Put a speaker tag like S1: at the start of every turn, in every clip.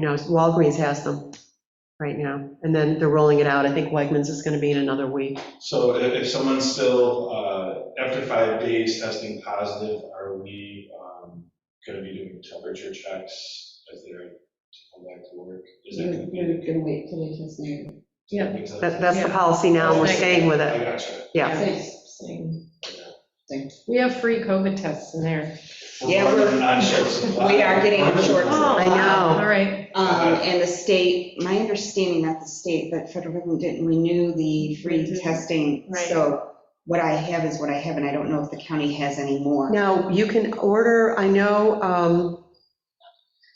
S1: You know, Walgreens has them right now, and then they're rolling it out. I think Wegmans is going to be in another week.
S2: So if, if someone's still, uh, after five days testing positive, are we, um, gonna be doing temperature checks as they're to come back to work? Is
S3: Mm-hmm.
S2: that gonna be?
S3: You're gonna wait till they test negative.
S4: yeah.
S1: That, that's the policy now, and we're staying with
S2: I
S1: it,
S2: gotcha.
S1: yeah.
S3: Same- Same thing.
S4: We have free COVID tests in there.
S3: Yeah, we're-
S2: running On short supply.
S3: we are getting on short
S1: I know.
S4: Oh, All right,
S3: Um, and the state, my understanding, not the state, but federal government didn't renew the free
S1: Mm-hmm.
S4: Mhm.
S3: testing.
S4: Right.
S3: So what I have is what I have, and I don't know if the county has any more.
S1: Now, you can order, I know, um,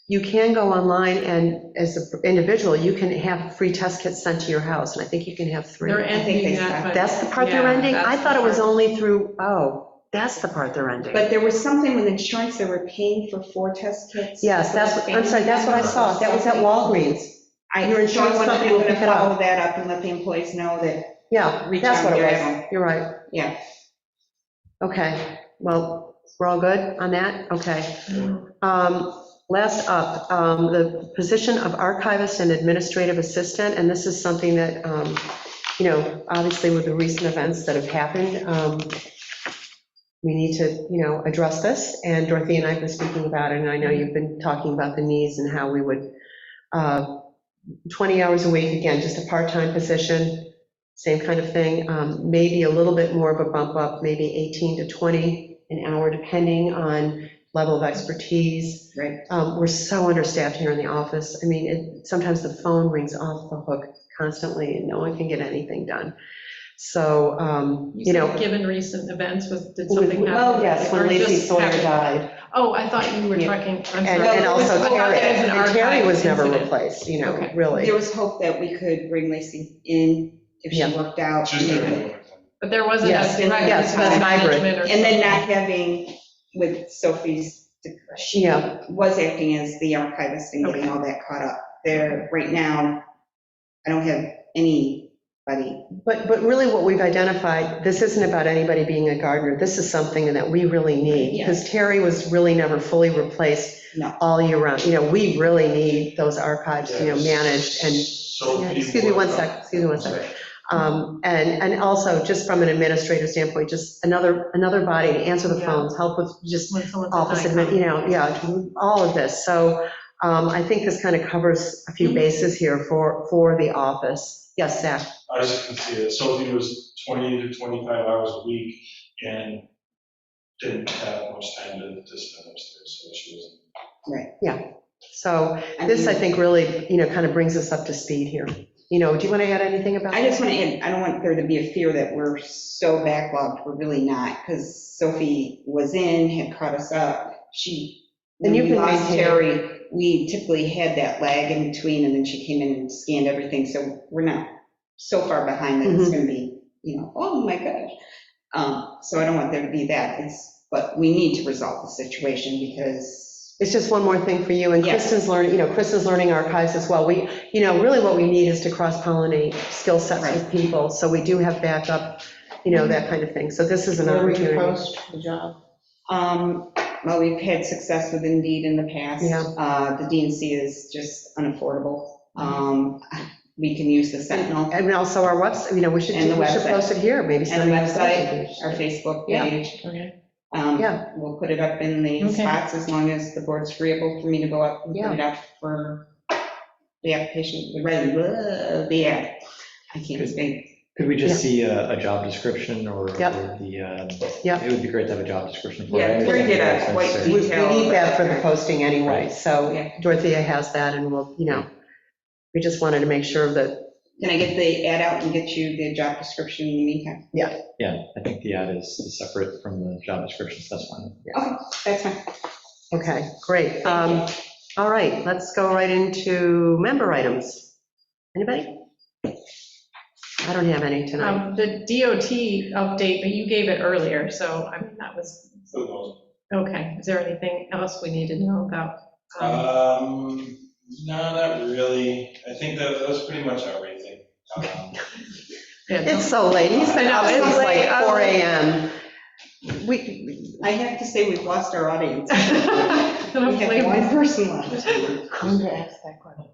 S1: you can go online and as an individual, you can have free test kits sent to your house, and I think you can have three.
S4: they're
S3: they
S4: ending
S3: stopped.
S4: that. but-
S1: That's the part they're
S4: Yeah,
S1: ending? I
S4: that's
S1: thought it was
S4: the part.
S1: only through, oh, that's the part they're ending.
S3: But there was something with insurance, they were paying for four test kits.
S1: Yes,
S3: for
S1: that's,
S3: the
S1: what- I'm sorry, that's what I saw, that was at
S3: family.
S1: Walgreens.
S3: I,
S1: Your
S3: so
S1: insurance
S3: I'm
S1: company
S3: gonna
S1: will pick it up.
S3: follow that up and let the employees know that,
S1: Yeah,
S3: Reach
S1: that's
S3: out
S1: what it
S3: there,
S1: was,
S3: Evan.
S1: you're right,
S3: yeah.
S1: okay, well, we're all good on that, okay. Um, Last up, um, the position of archivist and administrative assistant, and this is something that, um, you know, obviously with the recent events that have happened, um, we need to, you know, address this, and Dorothy and I have been speaking about it, and I know you've been talking about the needs and how we would, uh, 20 hours a week, again, just a part-time position, same kind of thing, um, maybe a little bit more of a bump up, maybe 18 to 20 an hour, depending on level of expertise.
S3: Right.
S1: Um, We're so understaffed here in the office, I mean, it, sometimes the phone rings off the hook constantly, and no one can get anything done. So, um, you know.
S4: said Given recent events, was, did something happen?
S1: Well, yes, when
S4: Or
S1: Lacey
S4: just
S1: Sawyer
S4: happened?
S1: died,
S4: Oh, I thought you were
S1: Yeah.
S4: talking, I'm sorry.
S1: and and also
S4: Oh,
S1: Terry,
S4: that was an
S1: and Terry
S4: archived
S1: was never
S4: incident.
S1: replaced, you know,
S4: Okay.
S1: really.
S3: There was hope that we could bring Lacey in if she
S1: Yeah.
S3: worked out.
S2: Just everyone.
S4: But there wasn't a
S1: Yes,
S4: direct
S3: yes,
S4: incident
S3: that's
S1: hybrid.
S4: management or
S3: And
S4: something.
S3: then not having with Sophie's, she
S1: Yeah.
S3: was acting as the archivist and getting all that caught up. There, right now, I don't have anybody.
S1: But, but really what we've identified, this isn't about anybody being a gardener, this is something that we really need,
S3: Yeah.
S1: because Terry was really never fully replaced
S3: No.
S1: all year round, you know, we really need those archives, you know, managed, and,
S2: So.
S1: Yeah, excuse me one sec, excuse me one sec. um, and, and also, just from an administrator standpoint, just another, another body to answer the
S4: Yeah.
S1: phones, help with just
S4: When someone's at
S1: office
S4: night.
S1: admin, you know, yeah, all of this. So um, I think this kind of covers a few
S3: Mm-hmm.
S1: bases here for, for the office. Yes, Zach?
S2: I was just gonna say that Sophie was 20 to 25 hours a week and didn't have much time to to spend upstairs, so she was.
S1: So this, I think, really, you know, kind of brings us up to speed here. You know, do you want to add anything about?
S3: I just want to add, I don't want there to be a fear that we're so backlogged, we're really not, because Sophie was in, had caught us up, she, when
S1: And you've
S3: we
S1: been
S3: lost
S1: maintaining-
S3: Terry, we typically had that lag in between, and then she came in and scanned everything, so we're not so far behind that
S1: Mm-hmm.
S3: it's gonna be, you know, oh my gosh. Um, so I don't want there to be that, it's, but we need to resolve the situation, because,
S1: It's just one more thing for you, and
S3: Yes.
S1: Kristen's learning, you know, Kristen's learning archives as well. We, you know, really what we need is to cross-pollinate skill sets with people, so we do have backup, you know, that kind of thing. So this is an opportunity.
S4: the job?
S3: um, well, we've had success with Indeed in the past.
S1: Yeah.
S3: Uh, the DNC is just unaffordable, um, we can use the Sentinel.
S1: And also our website, you know, we should,
S3: And the
S1: we should
S3: website.
S1: post it here, maybe.
S3: And the
S1: somebody-
S3: website, our Facebook
S1: Yeah.
S3: page.
S4: Okay.
S3: Um,
S1: Yeah.
S3: We'll put it up in the
S4: Okay.
S3: spots as long as the board's agreeable for me to go up and
S1: Yeah.
S3: put it up for the application, the, re- the ad. I can't speak.
S5: Could we just see a, a job description or?
S1: Yep.
S5: or The, uh,
S1: Yep.
S5: it would be great to have a job description for. it.
S3: Yeah, we're gonna get a white
S5: Necessary.
S1: We we
S3: detail.
S1: need that for the posting anyway,
S5: Right.
S1: so
S3: Oh, Yeah.
S1: Dorothea has that, and we'll, you know, we just wanted to make sure that,
S3: Can I get the ad out and get you the job description in the meantime?
S5: Yeah, I think the ad is is separate from the job description, so that's fine.
S3: That's fine.
S1: okay, great. Um, All right, let's go right into member items. Anybody? I don't have any tonight.
S4: Um, The DOT update, but you gave it earlier, so I mean, that was,
S2: for the most
S4: okay. Is there anything else we need to know about? um,
S2: Um, no, not really. I think that, that's pretty much everything. Um,
S4: yeah,
S1: It's so late, he's been
S4: I
S1: up
S4: know, it's
S1: since like
S4: late.
S1: 4 AM. We,
S3: I have to say, we've lost our audience.
S4: Gonna
S3: We have
S4: play
S3: one person left.
S6: I'm going to ask that question.